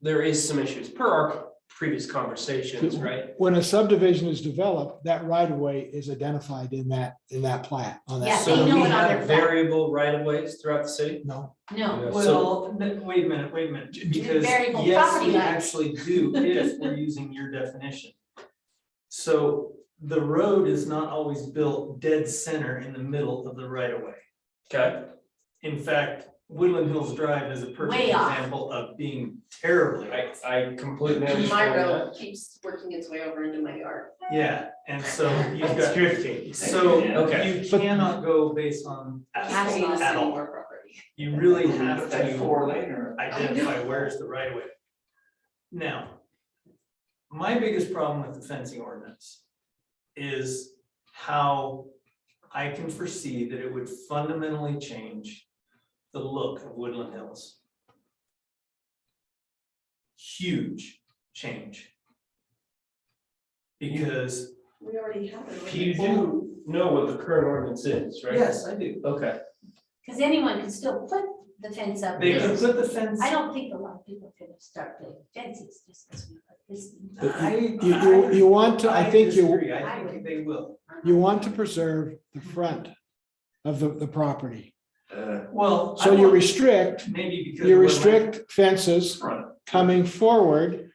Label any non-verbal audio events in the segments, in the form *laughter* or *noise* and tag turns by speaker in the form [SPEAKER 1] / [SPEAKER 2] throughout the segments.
[SPEAKER 1] there is some issues per our previous conversations, right?
[SPEAKER 2] When a subdivision is developed, that right of way is identified in that, in that plat on that.
[SPEAKER 3] Yeah, they
[SPEAKER 1] So
[SPEAKER 2] subdivision.
[SPEAKER 3] know
[SPEAKER 1] we
[SPEAKER 3] it on their
[SPEAKER 1] have
[SPEAKER 3] back.
[SPEAKER 1] variable right of ways throughout the city.
[SPEAKER 2] No,
[SPEAKER 3] No,
[SPEAKER 4] Well, n- wait a minute, wait a minute, because
[SPEAKER 3] variable
[SPEAKER 4] yes,
[SPEAKER 3] property
[SPEAKER 4] we
[SPEAKER 3] lines.
[SPEAKER 4] actually do
[SPEAKER 3] *laughs*
[SPEAKER 4] if we're using your definition. So the road is not always built dead center in the middle of the right of way.
[SPEAKER 1] Okay,
[SPEAKER 4] In fact, Woodland Hills Drive is a perfect
[SPEAKER 3] Way off.
[SPEAKER 4] example of being terribly
[SPEAKER 1] I,
[SPEAKER 4] off.
[SPEAKER 1] I completely
[SPEAKER 5] My
[SPEAKER 1] understand that.
[SPEAKER 5] road keeps working its way over into my yard.
[SPEAKER 4] Yeah, and so you've
[SPEAKER 6] It's
[SPEAKER 4] got,
[SPEAKER 6] drifting.
[SPEAKER 4] so
[SPEAKER 1] Okay.
[SPEAKER 4] you cannot go based on
[SPEAKER 5] I've
[SPEAKER 4] asphalt
[SPEAKER 5] lost
[SPEAKER 4] at
[SPEAKER 5] any
[SPEAKER 4] all.
[SPEAKER 5] more property.
[SPEAKER 4] You really have to.
[SPEAKER 6] That four lane or?
[SPEAKER 4] identify where is the right of way. Now, my biggest problem with the fencing ordinance is how I can foresee that it would fundamentally change the look of Woodland Hills. Huge change. Because,
[SPEAKER 5] We already have it.
[SPEAKER 1] You do know what the current ordinance is, right?
[SPEAKER 4] yes, I do,
[SPEAKER 1] Okay,
[SPEAKER 3] because anyone can still put the fence up.
[SPEAKER 4] they could
[SPEAKER 3] It's-
[SPEAKER 4] put the fence.
[SPEAKER 3] I don't think a lot of people can start building fences just because we put this. in.
[SPEAKER 4] I-
[SPEAKER 2] you, you, you want to, I think you,
[SPEAKER 4] disagree. I think they will.
[SPEAKER 2] you want to preserve the front of the, the property.
[SPEAKER 6] Uh,
[SPEAKER 4] Well. I
[SPEAKER 2] So you
[SPEAKER 4] want-
[SPEAKER 2] restrict,
[SPEAKER 4] Maybe because.
[SPEAKER 2] you
[SPEAKER 4] of what my-
[SPEAKER 2] restrict fences
[SPEAKER 6] Front.
[SPEAKER 2] coming forward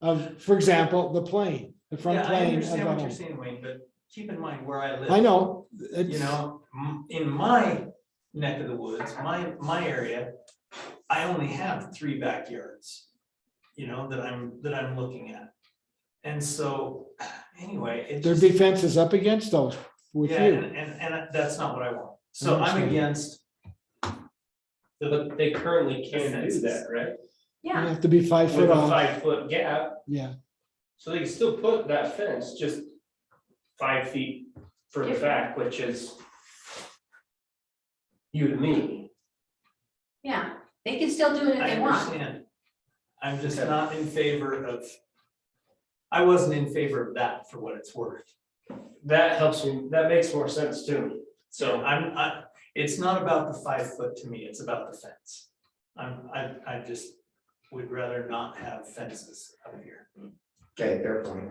[SPEAKER 2] of, for example, the plane, the front
[SPEAKER 4] Yeah, I
[SPEAKER 2] plane of the
[SPEAKER 4] understand what you're
[SPEAKER 2] home.
[SPEAKER 4] saying, Wayne, but keep in mind where I live.
[SPEAKER 2] I know.
[SPEAKER 4] You know, m- in my neck of the woods, my, my area, I only have three backyards. You know, that I'm, that I'm looking at. And so, anyway, it
[SPEAKER 2] There'd
[SPEAKER 4] just,
[SPEAKER 2] be fences up against those with
[SPEAKER 4] yeah,
[SPEAKER 2] you.
[SPEAKER 4] and, and, and that's not what I want. So I'm
[SPEAKER 2] understand.
[SPEAKER 4] against,
[SPEAKER 1] but they currently can do
[SPEAKER 4] Fences.
[SPEAKER 1] that, right?
[SPEAKER 2] You
[SPEAKER 3] Yeah,
[SPEAKER 2] have to be five
[SPEAKER 1] With
[SPEAKER 2] foot
[SPEAKER 1] a
[SPEAKER 2] off,
[SPEAKER 1] five foot gap,
[SPEAKER 2] yeah.
[SPEAKER 1] so they can still put that fence just five feet further back, which is you to me.
[SPEAKER 3] yeah, they can still do it if
[SPEAKER 4] I
[SPEAKER 3] they want.
[SPEAKER 4] understand. I'm just
[SPEAKER 1] Okay.
[SPEAKER 4] not in favor of, I wasn't in favor of that for what it's worth.
[SPEAKER 1] That helps me, that makes more sense to me,
[SPEAKER 4] So
[SPEAKER 1] so.
[SPEAKER 4] I'm, I, it's not about the five foot to me, it's about the fence. I'm, I, I just would rather not have fences up here.
[SPEAKER 6] Okay, fair point.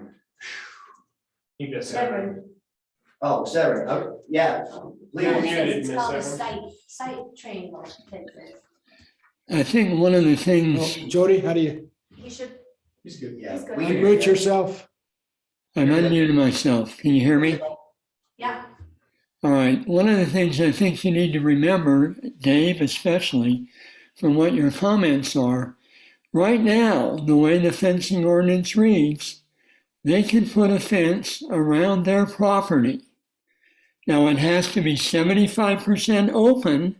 [SPEAKER 1] You just.
[SPEAKER 3] Severin.
[SPEAKER 6] Oh, Severn, oh, yeah.
[SPEAKER 3] Yeah,
[SPEAKER 6] Leo,
[SPEAKER 1] you
[SPEAKER 3] because
[SPEAKER 1] did
[SPEAKER 3] It's
[SPEAKER 1] miss
[SPEAKER 3] called
[SPEAKER 1] that
[SPEAKER 3] a
[SPEAKER 1] one.
[SPEAKER 3] site, site triangle fences.
[SPEAKER 7] I think one of the
[SPEAKER 2] Well,
[SPEAKER 7] things,
[SPEAKER 2] Jody, how do you
[SPEAKER 3] You should,
[SPEAKER 1] He's good.
[SPEAKER 6] Yeah.
[SPEAKER 3] He's
[SPEAKER 6] we-
[SPEAKER 3] good.
[SPEAKER 2] mute yourself?
[SPEAKER 7] I'm unmuted myself. Can you hear me?
[SPEAKER 3] yeah,
[SPEAKER 7] All right. One of the things I think you need to remember, Dave, especially from what your comments are, right now, the way the fencing ordinance reads, they can put a fence around their property. Now, it has to be 75% open.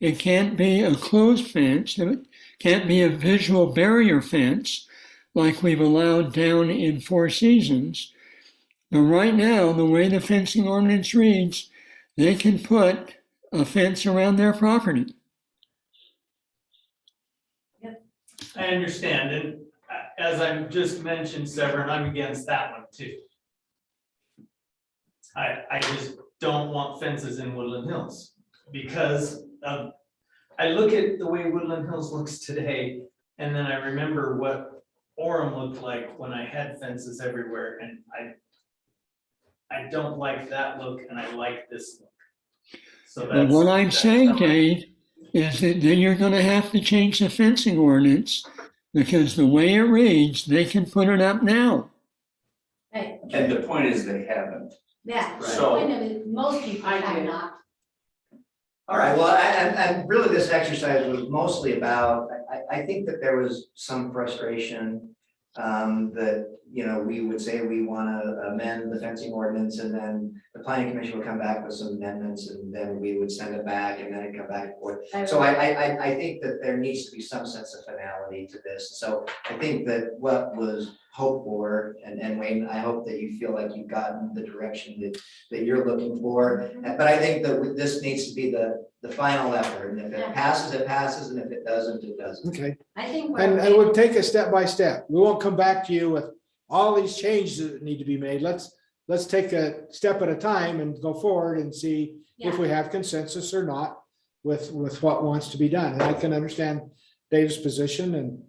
[SPEAKER 7] It can't be a closed fence. It can't be a visual barrier fence like we've allowed down in Four Seasons. But right now, the way the fencing ordinance reads, they can put a fence around their property.
[SPEAKER 4] I understand, and uh, as I've just mentioned, Severn, I'm against that one too. I, I just don't want fences in Woodland Hills because of, I look at the way Woodland Hills looks today. And then I remember what Orem looked like when I had fences everywhere and I. I don't like that look and I like this look. So that's.
[SPEAKER 7] But what I'm
[SPEAKER 4] that's
[SPEAKER 7] saying,
[SPEAKER 4] how I-
[SPEAKER 7] Dave, is that then you're gonna have to change the fencing ordinance because the way it reads, they can put it up now.
[SPEAKER 3] right,
[SPEAKER 6] And the point is they haven't.
[SPEAKER 3] yeah.
[SPEAKER 6] So-
[SPEAKER 3] Point of- Most people
[SPEAKER 5] I do.
[SPEAKER 3] have not.
[SPEAKER 6] All right, well, I, I, I, really this exercise was mostly about, I, I, I think that there was some frustration. Um, that, you know, we would say we wanna amend the fencing ordinance and then the planning commission would come back with some amendments and then we would send it back and then it'd come back and forth. So I, I, I, I think that there needs to be some sense of finality to this, so I think that what was hoped for, and, and Wayne, I hope that you feel like you've gotten the direction that, that you're looking for. Uh, But I think that this needs to be the, the final effort, and if
[SPEAKER 3] Yeah.
[SPEAKER 6] it passes, it passes, and if it doesn't, it doesn't.
[SPEAKER 2] Okay,
[SPEAKER 3] I think. we're
[SPEAKER 2] and,
[SPEAKER 3] okay.
[SPEAKER 2] and we'll take it step by step. We won't come back to you with all these changes that need to be made. Let's, let's take a step at a time and go forward and see
[SPEAKER 3] Yeah.
[SPEAKER 2] if we have consensus or not with, with what wants to be done. And I can understand Dave's position and